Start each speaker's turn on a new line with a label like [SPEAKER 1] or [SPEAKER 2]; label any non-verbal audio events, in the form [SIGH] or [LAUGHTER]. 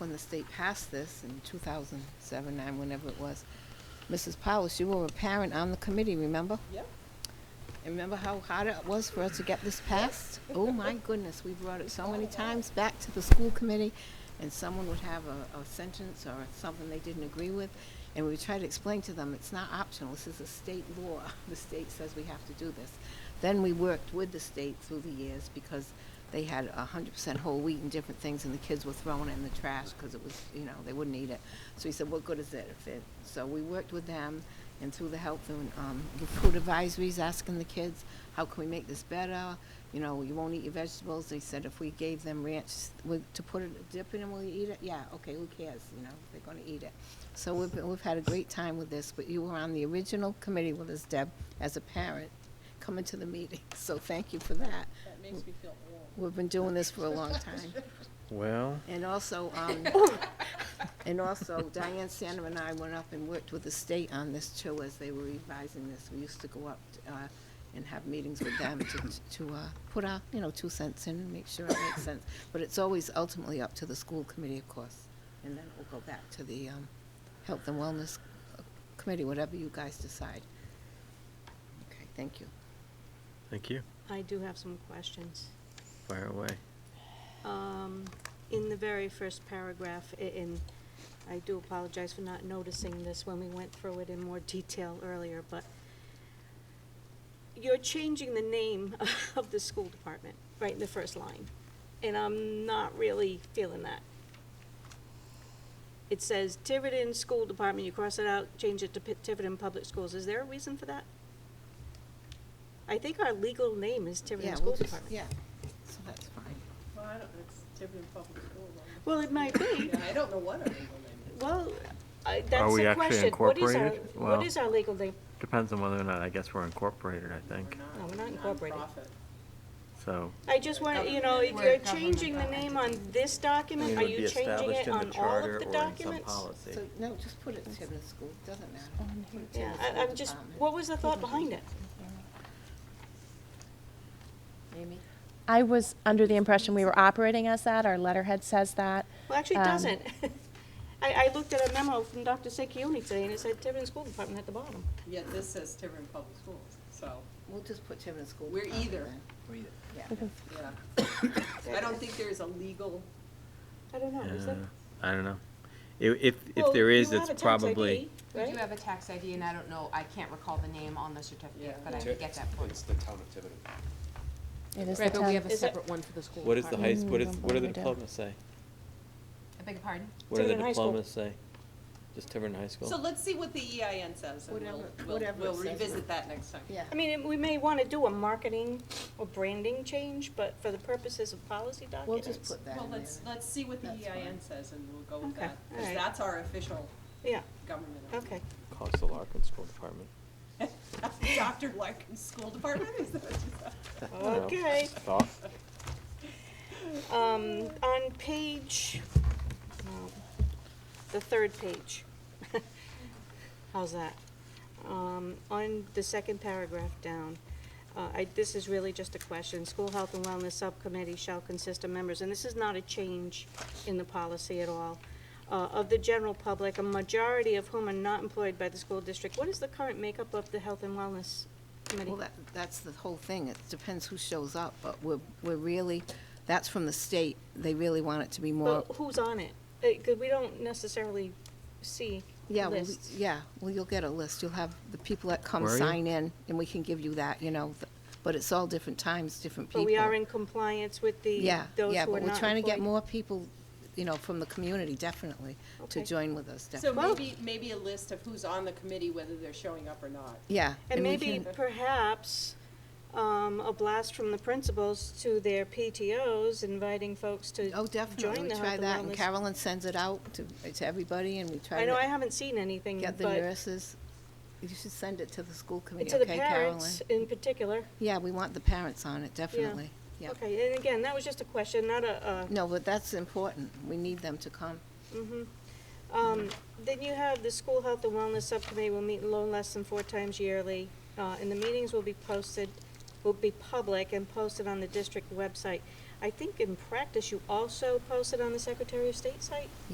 [SPEAKER 1] state passed this in two thousand seven, nine, whenever it was. Mrs. Powers, you were a parent on the committee, remember?
[SPEAKER 2] Yep.
[SPEAKER 1] And remember how hard it was for us to get this passed? Oh, my goodness, we brought it so many times back to the school committee, and someone would have a, a sentence or something they didn't agree with, and we would try to explain to them, it's not optional, this is a state law, [LAUGHS] the state says we have to do this. Then we worked with the state through the years, because they had a hundred percent whole wheat and different things, and the kids were throwing it in the trash, because it was, you know, they wouldn't eat it. So he said, what good is it if it, so we worked with them, and through the health and um, the food advisories, asking the kids, how can we make this better? You know, you won't eat your vegetables. They said if we gave them ranch with, to put it, dip it in, will you eat it? Yeah, okay, who cares? You know, they're going to eat it. So we've, been- we've had a great time with this, but you were on the original committee with us, Deb, as a parent, coming to the meeting. [LAUGHS] So thank you for that.
[SPEAKER 2] That makes me feel old.
[SPEAKER 1] We've been doing this for a long time.
[SPEAKER 3] Well,
[SPEAKER 1] And also,
[SPEAKER 4] [LAUGHS]
[SPEAKER 1] um, and also Diane Sandham and I went up and worked with the state on this too as they were revising this. We used to go up, uh, and have meetings with them to, to, uh, put our, you know, two cents in and make sure it makes sense. But it's always ultimately up to the school committee, of course. And then we'll go back to the, um, health and wellness uh, committee, whatever you guys decide. Okay, thank you.
[SPEAKER 3] thank you.
[SPEAKER 4] I do have some questions.
[SPEAKER 3] Fire away.
[SPEAKER 4] Um, in the very first paragraph, i- in, I do apologize for not noticing this when we went through it in more detail earlier, but you're changing the name [LAUGHS] of the school department, right in the first line, and I'm not really feeling that. It says Tiverton School Department, you cross it out, change it to Pi- Tiverton Public Schools. Is there a reason for that? I think our legal name is
[SPEAKER 1] Yeah,
[SPEAKER 4] Tiverton
[SPEAKER 1] we'll
[SPEAKER 4] School
[SPEAKER 1] just-
[SPEAKER 4] Department.
[SPEAKER 1] Yeah, so that's fine.
[SPEAKER 2] Well, I don't, it's Tiverton Public School.
[SPEAKER 4] Well, it might
[SPEAKER 2] though.
[SPEAKER 4] be.
[SPEAKER 2] Yeah, I don't know what our legal name is.
[SPEAKER 4] Well, I, that's
[SPEAKER 3] we
[SPEAKER 4] the
[SPEAKER 3] actually
[SPEAKER 4] question. What is our,
[SPEAKER 3] incorporated? Well-
[SPEAKER 4] what is our legal name?
[SPEAKER 3] Depends on whether or not, I guess we're incorporated, I think.
[SPEAKER 2] We're
[SPEAKER 4] No,
[SPEAKER 2] not.
[SPEAKER 4] we're not incorporated.
[SPEAKER 2] Nonprofit.
[SPEAKER 3] So,
[SPEAKER 4] I just want, you know, if
[SPEAKER 1] We're
[SPEAKER 4] you're
[SPEAKER 1] a
[SPEAKER 4] changing the
[SPEAKER 1] governmental
[SPEAKER 4] name on this document, are
[SPEAKER 3] it would be
[SPEAKER 4] you changing
[SPEAKER 3] established
[SPEAKER 4] it
[SPEAKER 3] in the
[SPEAKER 4] on all
[SPEAKER 3] charter
[SPEAKER 4] of the
[SPEAKER 3] or in some
[SPEAKER 4] documents?
[SPEAKER 3] policy.
[SPEAKER 1] So, no, just put it to the school, doesn't matter. It's in
[SPEAKER 4] Yeah,
[SPEAKER 1] the
[SPEAKER 4] I,
[SPEAKER 1] school
[SPEAKER 4] I'm just,
[SPEAKER 5] Um,
[SPEAKER 1] department.
[SPEAKER 4] what was the thought behind it?
[SPEAKER 1] Amy?
[SPEAKER 6] I was under the impression we were operating as that, our letterhead says that.
[SPEAKER 4] Well, actually, it
[SPEAKER 6] Um,
[SPEAKER 4] doesn't. [LAUGHS] I, I looked at a memo from Dr. Sekiuni today, and it said Tiverton School Department at the bottom.
[SPEAKER 2] Yet this says Tiverton Public Schools, so,
[SPEAKER 1] We'll just put Tiverton School.
[SPEAKER 2] We're
[SPEAKER 1] Department
[SPEAKER 2] either.
[SPEAKER 1] then.
[SPEAKER 6] We
[SPEAKER 1] Yeah.
[SPEAKER 6] can-
[SPEAKER 2] yeah.
[SPEAKER 4] [COUGHS]
[SPEAKER 2] I don't think there's a legal,
[SPEAKER 4] I don't know, is
[SPEAKER 3] uh,
[SPEAKER 4] that?
[SPEAKER 3] I don't know. If, if, if
[SPEAKER 4] Well,
[SPEAKER 3] there is,
[SPEAKER 4] you have
[SPEAKER 3] it's
[SPEAKER 4] a eh? tax
[SPEAKER 3] probably,
[SPEAKER 4] ID,
[SPEAKER 5] We do
[SPEAKER 4] Right?
[SPEAKER 5] have a tax ID, and I don't know, I can't recall the name on the certificate,
[SPEAKER 2] Yeah.
[SPEAKER 5] but I can get that for you.
[SPEAKER 7] It's the town of Tiverton.
[SPEAKER 6] It is the
[SPEAKER 5] Right, but we
[SPEAKER 6] town.
[SPEAKER 5] have a
[SPEAKER 4] Is it-
[SPEAKER 5] separate one for the school
[SPEAKER 3] what is the high,
[SPEAKER 5] department.
[SPEAKER 3] s- what is,
[SPEAKER 6] Mm,
[SPEAKER 3] what do the
[SPEAKER 6] we do.
[SPEAKER 3] diplomas say?
[SPEAKER 5] I beg your pardon?
[SPEAKER 3] What do the
[SPEAKER 4] Tiverton High School.
[SPEAKER 3] diplomas say? Just Tiverton High
[SPEAKER 2] so
[SPEAKER 3] School?
[SPEAKER 2] let's see what the EIN says, and we'll,
[SPEAKER 1] Whatever-
[SPEAKER 2] we'll-
[SPEAKER 1] whatever it
[SPEAKER 2] we'll
[SPEAKER 1] says.
[SPEAKER 2] revisit that next time.
[SPEAKER 1] Yeah.
[SPEAKER 4] I mean, it- we may wanna do a marketing or branding change, but for the purposes of policy documents.
[SPEAKER 1] We'll just put that
[SPEAKER 2] Well,
[SPEAKER 1] in there.
[SPEAKER 2] let's, let's see what the
[SPEAKER 1] That's fine.
[SPEAKER 2] EIN says, and we'll go with
[SPEAKER 4] Okay,
[SPEAKER 2] that, because
[SPEAKER 4] alright.
[SPEAKER 2] that's our official
[SPEAKER 4] Yeah,
[SPEAKER 2] government.
[SPEAKER 4] okay.
[SPEAKER 2] [LAUGHS]
[SPEAKER 3] Calls the Larkin School Department.
[SPEAKER 2] Dr. Larkin's school department, is that what you said?
[SPEAKER 3] I don't know.
[SPEAKER 4] Okay.
[SPEAKER 3] Thought.
[SPEAKER 4] Um, on page, no, the third page. [LAUGHS] How's that? Um, on the second paragraph down, uh, I, this is really just a question. School Health and Wellness Subcommittee shall consist of members, and this is not a change in the policy at all, uh, of the general public, a majority of whom are not employed by the school district. What is the current makeup of the Health and Wellness Committee?
[SPEAKER 1] Well, that, that's the whole thing. It depends who shows up, but we're, we're really, that's from the state. They really want it to be more,
[SPEAKER 4] Well, who's on it? Because we don't necessarily see
[SPEAKER 1] yeah, well, we-
[SPEAKER 4] lists.
[SPEAKER 1] yeah, well, you'll get a list. You'll have the people that come
[SPEAKER 3] Where are you?
[SPEAKER 1] sign in, and we can give you that, you know, th- but it's all different times, different people.
[SPEAKER 4] But we are in compliance with the,
[SPEAKER 1] Yeah,
[SPEAKER 4] those who are not
[SPEAKER 1] yeah, but we're trying to get
[SPEAKER 4] employed.
[SPEAKER 1] more people, you know, from the community, definitely, to
[SPEAKER 4] Okay.
[SPEAKER 1] join with us,
[SPEAKER 2] So
[SPEAKER 1] definitely.
[SPEAKER 4] Well-
[SPEAKER 2] maybe, maybe a list of who's on the committee, whether they're showing up or not.
[SPEAKER 1] Yeah.
[SPEAKER 4] And
[SPEAKER 1] we
[SPEAKER 4] maybe
[SPEAKER 1] can-
[SPEAKER 4] perhaps, um, a blast from the principals to their PTOs, inviting folks to
[SPEAKER 1] Oh,
[SPEAKER 4] join
[SPEAKER 1] definitely.
[SPEAKER 4] the
[SPEAKER 1] We try
[SPEAKER 4] Health
[SPEAKER 1] that, and
[SPEAKER 4] and Wellness.
[SPEAKER 1] Carolyn sends it out to, to everybody, and we try
[SPEAKER 4] I know I
[SPEAKER 1] to
[SPEAKER 4] haven't seen anything,
[SPEAKER 1] get the
[SPEAKER 4] but
[SPEAKER 1] nurses. You should send it to the school committee,
[SPEAKER 4] to the
[SPEAKER 1] okay, Carolyn?
[SPEAKER 4] parents in particular.
[SPEAKER 1] Yeah, we want the parents on it, definitely. Yeah.
[SPEAKER 4] Okay, and again, that was just a question, not a, uh,
[SPEAKER 1] No, but that's important. We need them to come.
[SPEAKER 4] Um, then you have the School Health and Wellness Subcommittee will meet no less than four times yearly, uh, and the meetings will be posted, will be public and posted on the district website. I think in practice, you also post it on the Secretary of State site?